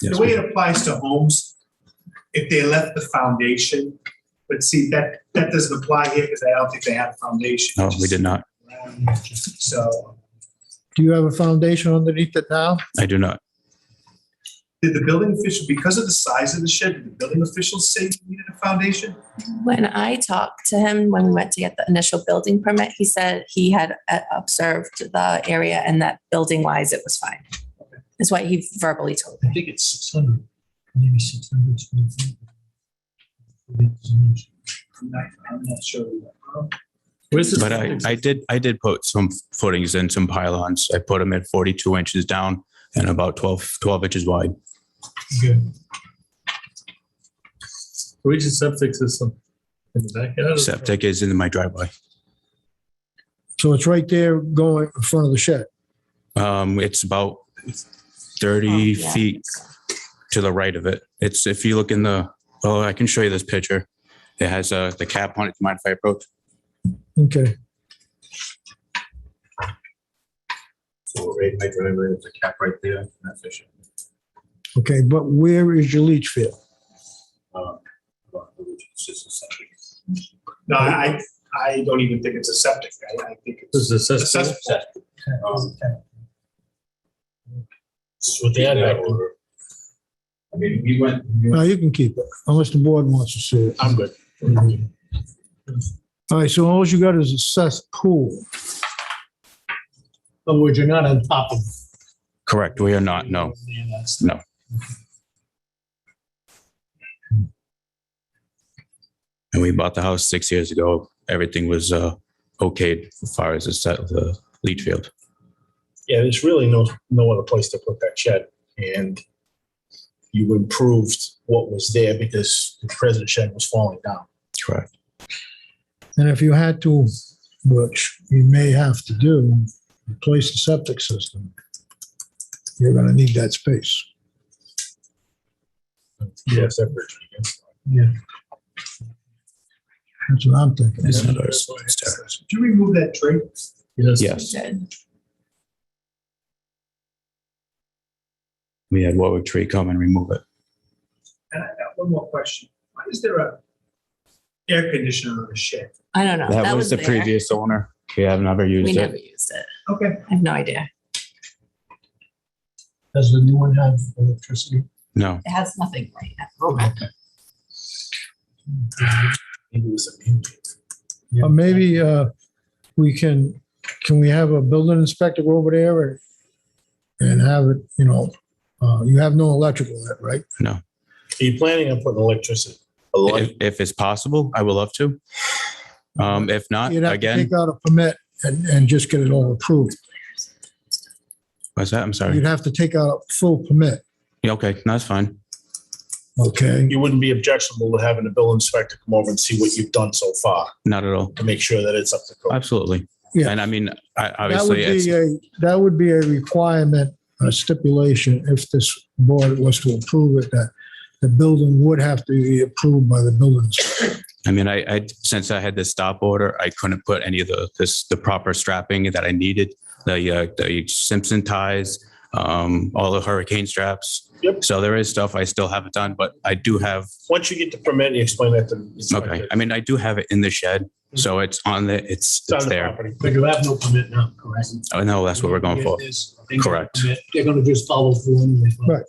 The Yes, way it applies to homes, if they left the foundation, but see, that, that doesn't apply here because I don't think they had a foundation. No, we did not. So, Do you have a foundation underneath it now? I do not. did the building official, because of the size of the shed, did the building officials say you needed a foundation? When I talked to him, when we went to get the initial building permit, he said he had uh, observed the area and that building wise, it was fine. Is what he verbally told me. I think it's six hundred, maybe six hundred square feet. I'm not, I'm not sure. Where's the But I, I did, I did put some footings in, some pylons. I put them at 42 inches down and about 12, 12 inches wide. Where's the septic system? In the backyard? Septic is in my driveway. So it's right there going in front of the shed. Um, it's about 30 Oh, yeah. feet to the right of it. It's, if you look in the, oh, I can show you this picture. It has, uh, the cap on it. Do you Mind if I approach? Okay, So right, my driveway, there's a cap right there. okay, but where is your leach field? No, I, I don't even think it's a septic. I, I think This it's. is the a septic. cess- I mean, we went, No, you can keep it unless the board wants to see it. I'm good. All right, so all you got is a cesspool. But would you not on top of? Correct. We are not, Uh, no. No. And we bought the house six years ago. Everything was, uh, okayed as far as the set, the leach field. yeah, there's really no, no other place to put that shed. And you improved what was there because the present shed was falling down. Correct. And if you had to, which you may have to do, replace the septic system, you're gonna need that space. Yes. That's what I'm thinking. It's not ours. It's Did theirs. you remove that tree? Yes, we had Warwick Tree come and remove it. And I got one more question. Why is there a air conditioner on the shed? I don't know. That was the there. previous owner. We have never We used never it. used it. Okay. I have no idea. Does the new one have electricity? No, It has nothing right now. Or maybe uh, we can, can we have a building inspector go over there and- and have it, you know, uh, you have no electrical in it, right? Are you planning on putting electricity? if, if it's possible, I would love to. Um, if not, You'd have to again, Take out a permit and, and just get it all approved. what's that? I'm sorry. You'd have to take out a full permit, Yeah, okay, no, that's fine. okay? You wouldn't be objectionable to having a bill inspector come over and see what you've done so far Not at all. to make sure that it's up to code. Absolutely. Yeah. And I mean, I, That obviously, would be it's, a, that would be a requirement, a stipulation, if this board was to approve it, that the building would have to be approved by the building inspector. I mean, I, I, since I had this stop order, I couldn't put any of the, this, the proper strapping that I needed. The, uh, the Simpson ties, um, all the hurricane straps. Yep. So there is stuff I still haven't done, but I do have Once you get the permit, you explain that to the Okay, inspector. I mean, I do have it in the shed, so it's on the, it's, Mm-hmm. on it's the there. property. But you have no permit now, correct? I know that's what we're going for. Correct. They're gonna just follow through anyway. but Right.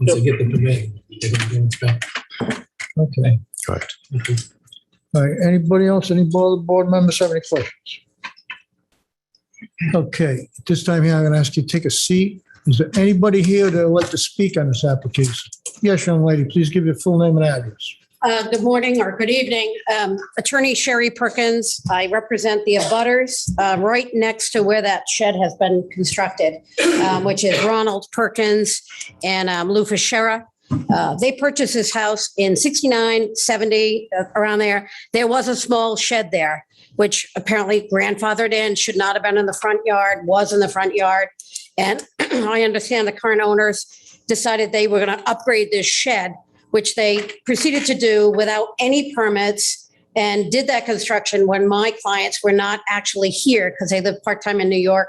Once they get the permit, they're gonna go inspect. Okay. Correct. All right, anybody else, any board, board members have any questions? Okay, at this time here, I'm gonna ask you to take a seat. Is there anybody here that would like to speak on this application? Yes, young lady, please give your full name and address. Uh, Good morning or good evening. Um, Attorney Sherry Perkins, I represent the abutters uh, right next to where that shed has been constructed, um, which is Ronald Perkins and um, Lou Fischera. Uh They purchased this house in 69, 70, uh, around there. There was a small shed there, which apparently grandfathered in, should not have been in the front yard, was in the front yard. And I understand the current owners decided they were going to upgrade this shed which they proceeded to do without any permits and did that construction when my clients were not actually here because they live part-time in New York,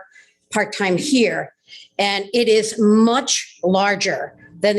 part-time here. And it is much larger than